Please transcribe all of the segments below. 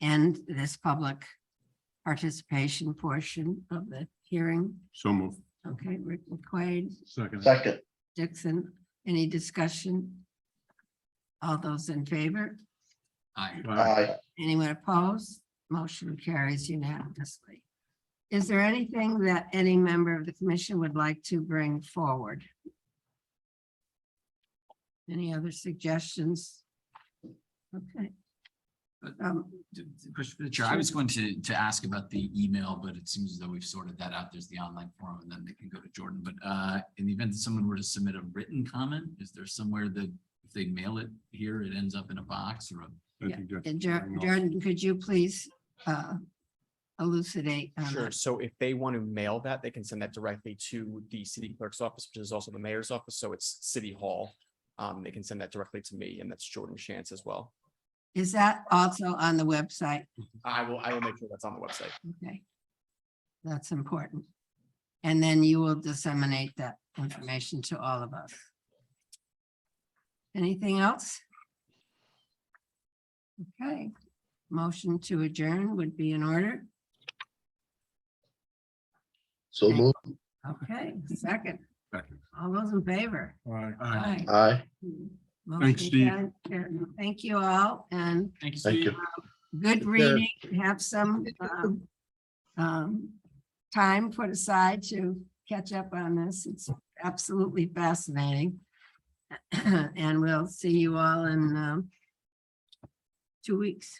end this public participation portion of the hearing. So move. Okay, Rick McQuaid, Second. second, Dixon, any discussion? All those in favor? Aye. aye, Anyone opposed? Motion carries unanimously. Is there anything that any member of the commission would like to bring forward? Any other suggestions? Okay. Um, D- d- push for the chair. I was going to, to ask about the email, but it seems as though we've sorted that out. There's the online forum and then they can go to Jordan. But uh, in the event that someone were to submit a written comment, is there somewhere that if they mail it here, it ends up in a box or a? I think that's- and Jor- Jordan, could you please uh, elucidate? on Sure. that? So if they want to mail that, they can send that directly to the city clerk's office, which is also the mayor's office. So it's City Hall. Um, they can send that directly to me and that's Jordan Chance as well. Is that also on the website? I will, I will make sure that's on the website. Okay. That's important. And then you will disseminate that information to all of us. Anything else? Okay, motion to adjourn would be in order. so move, Okay, second, Second. all those in favor? Aye. aye, Motion Steve. carried. Thank you all and Thank you. thank you. good Take care. reading. Have some um, um, time put aside to catch up on this. It's absolutely fascinating. And we'll see you all in um, two weeks.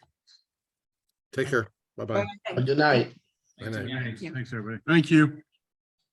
Take care. Bye-bye. Good night. Thank you. you. Thanks, everybody. Thank you.